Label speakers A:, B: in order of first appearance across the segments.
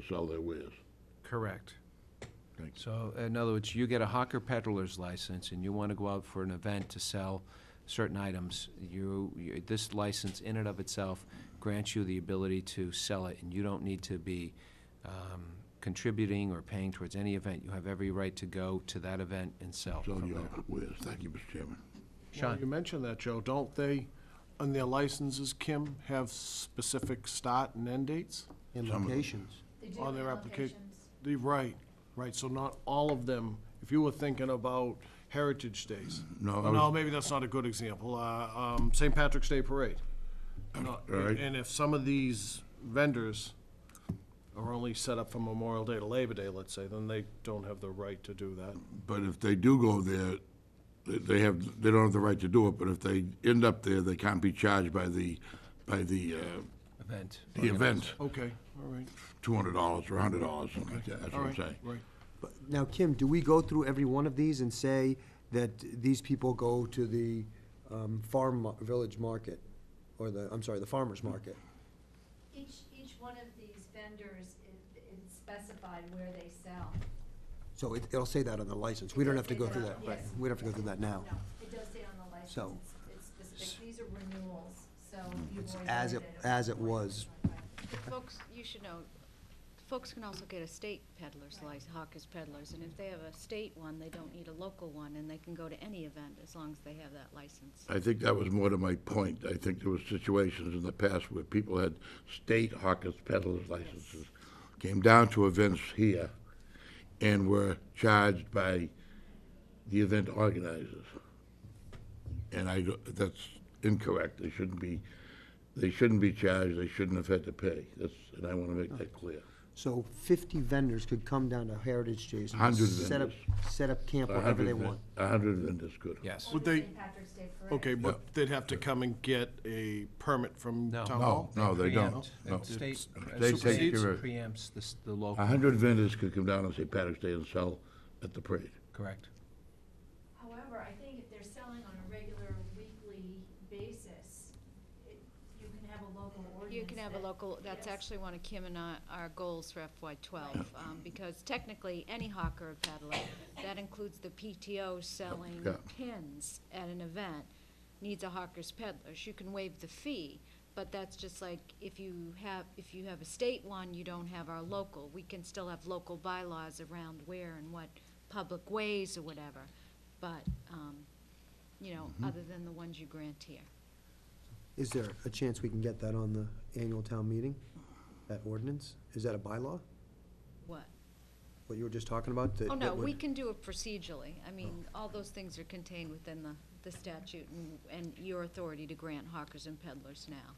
A: to sell their wares.
B: Correct.
A: Thank you.
B: So, in other words, you get a hawker peddler's license and you want to go out for an event to sell certain items, you, you- this license in and of itself grants you the ability to sell it, and you don't need to be um, contributing or paying towards any event. You have every right to go to that event and sell.
A: Sell
B: from
A: your
B: there.
A: wares. Thank you, Mr. Chairman.
C: Well,
B: Sean?
C: You mentioned that, Joe. Don't they, on their licenses, Kim, have specific start and end dates?
D: in
A: Some of them.
D: locations.
E: They do
C: On their
E: have
C: applica-
E: locations.
C: They, right, right, so not all of them. If you were thinking about Heritage Days.
A: No, I
C: No,
A: was-
C: maybe that's not a good example. Uh, um, St. Patrick's Day Parade. No,
A: all right.
C: And if some of these vendors are only set up from Memorial Day to Labor Day, let's say, then they don't have the right to do that.
A: But if they do go there, they- they have, they don't have the right to do it, but if they end up there, they can't be charged by the, by the, uh,
B: Event.
A: the event,
C: Okay, all right,
A: two hundred dollars or a hundred dollars, something like that, that's
C: all
A: what I'm
C: right,
A: saying.
C: right.
D: But Now, Kim, do we go through every one of these and say that these people go to the um, farm, mar- village market? Or the, I'm sorry, the farmer's market?
E: Each, each one of these vendors is, is specified where they sell.
D: So it- it'll say that on the license. We don't have to go through that.
E: Yes.
D: We don't have to go through that now.
E: No, it does say on the license.
D: So-
E: It's it's specific, these are renewals, so you
D: It's
E: always.
D: as
E: look
D: it-
E: at
D: as it
E: before you
D: was.
E: sign by.
F: Folks, you should know, folks can also get a state peddler's license, hawkers peddlers, and if they have a state one, they don't need a local one, and they can go to any event as long as they have that license.
A: I think that was more to my point. I think there were situations in the past where people had state hawkers peddlers licenses, came down to events here, and were charged by the event organizers. And I, don't- that's incorrect. They shouldn't be, they shouldn't be charged, they shouldn't have had to pay. That's, and I want to make that clear.
D: So fifty vendors could come down to Heritage Days. and
A: 100
D: set up- Set up camp
A: A
D: wherever they
A: hundred ven-
D: want.
A: A hundred vendors could.
B: Yes.
C: Would
E: Or the
C: they-
E: St. Patrick's Day Parade.
C: Okay, but they'd have to come and get a permit from
B: No.
C: town
B: No,
C: hall?
A: No, they don't.
B: Preempt.
A: No.
B: The State
A: They take
B: supersedes,
A: care of-
B: preempts the, s-
A: A
B: the local,
A: hundred vendors could come down on St. Patrick's Day and sell at the parade.
B: correct?
E: However, I think if they're selling on a regular weekly basis, it- you can have a local ordinance.
F: You can have a
E: that-
F: local, that's
E: Yes.
F: actually one of Kim and I, our goals for FY twelve, um, because technically, any hawker or peddler, that includes the PTO selling
A: Yeah.
F: pins at an event, needs a hawker's peddlers, you can waive the fee, but that's just like, if you have, if you have a state one, you don't have our local, we can still have local bylaws around where and what public ways or whatever, but, um, you know, other than the ones you grant here.
D: Is there a chance we can get that on the annual town meeting? That ordinance? Is that a bylaw?
F: What?
D: What you were just talking about? that-
F: Oh, no,
D: that would-
F: we can do it procedurally.
B: Oh.
F: I mean, all those things are contained within the, the statute and, and your authority to grant hawkers and peddlers now.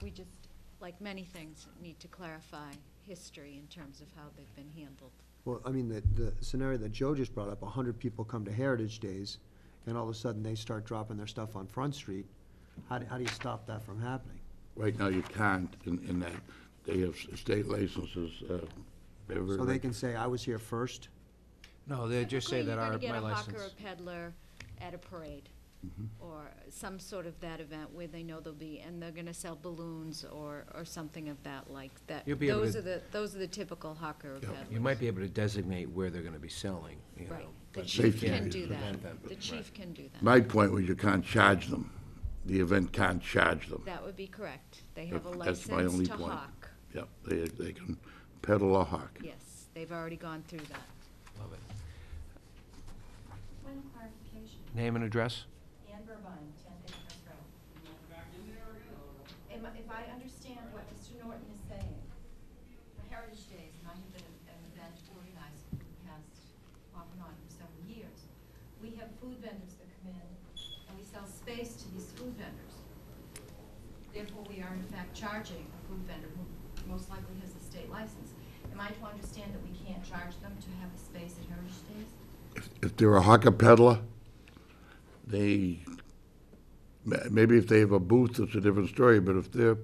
F: We just, like many things, need to clarify history in terms of how they've been handled.
D: Well, I mean, the, the scenario that Joe just brought up, a hundred people come to Heritage Days, and all of a sudden they start dropping their stuff on Front Street. How, do- how do you stop that from happening?
A: Right now, you can't in, in that, they have s- state licenses. uh, they're
D: So they
A: very-
D: can say, I was here first?
B: No, they just say that our,
F: Typically,
B: my
F: you're gonna get
B: license. Mm-hmm.
F: a hawker or peddler at a parade, or some sort of that event where they know they'll be, and they're gonna sell balloons or, or something of that like that.
B: You'll be able
F: Those
B: to-
F: are the, those are the typical hawker or peddlers.
B: You might be able to designate where they're gonna be selling, you know.
F: Right, the
B: but
F: chief
A: safety
F: can
A: issues
F: do
B: prevent
F: that.
B: them.
F: The chief can do that.
A: My point was you can't charge them. The event can't charge them.
F: That would be correct. They have a
A: That's my only
F: license to
A: point.
F: hawk.
A: Yep, they, they can peddle or hawk.
F: Yes, they've already gone through that.
B: Love it.
E: One clarification,
B: Name and address?
E: Ann Burbine, ten Acres Road. Am I- If I understand what Mr. Norton is saying, the Heritage Days might have been an event organized for the past, off and on, for several years. We have food vendors that come in, and we sell space to these food vendors. Therefore, we are in fact charging a food vendor who most likely has a state license. Am I to understand that we can't charge them to have the space at Heritage Days?
A: If- If they're a hawker peddler, they, ma- maybe if they have a booth, it's a different story, but if they're,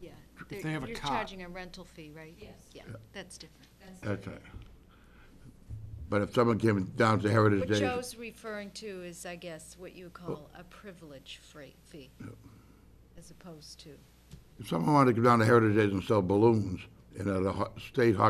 F: Yeah.
C: If they have a
F: You're
C: cot.
F: charging a rental fee, right?
E: Yes.
F: Yeah, that's different.
E: That's
A: that's right. But if someone came down to Heritage
F: What
A: Days.
F: Joe's referring to is, I guess, what you would call a privilege freight fee, as opposed to,
A: If someone wanted to come down to Heritage Days and sell balloons, and at a ho- state hockey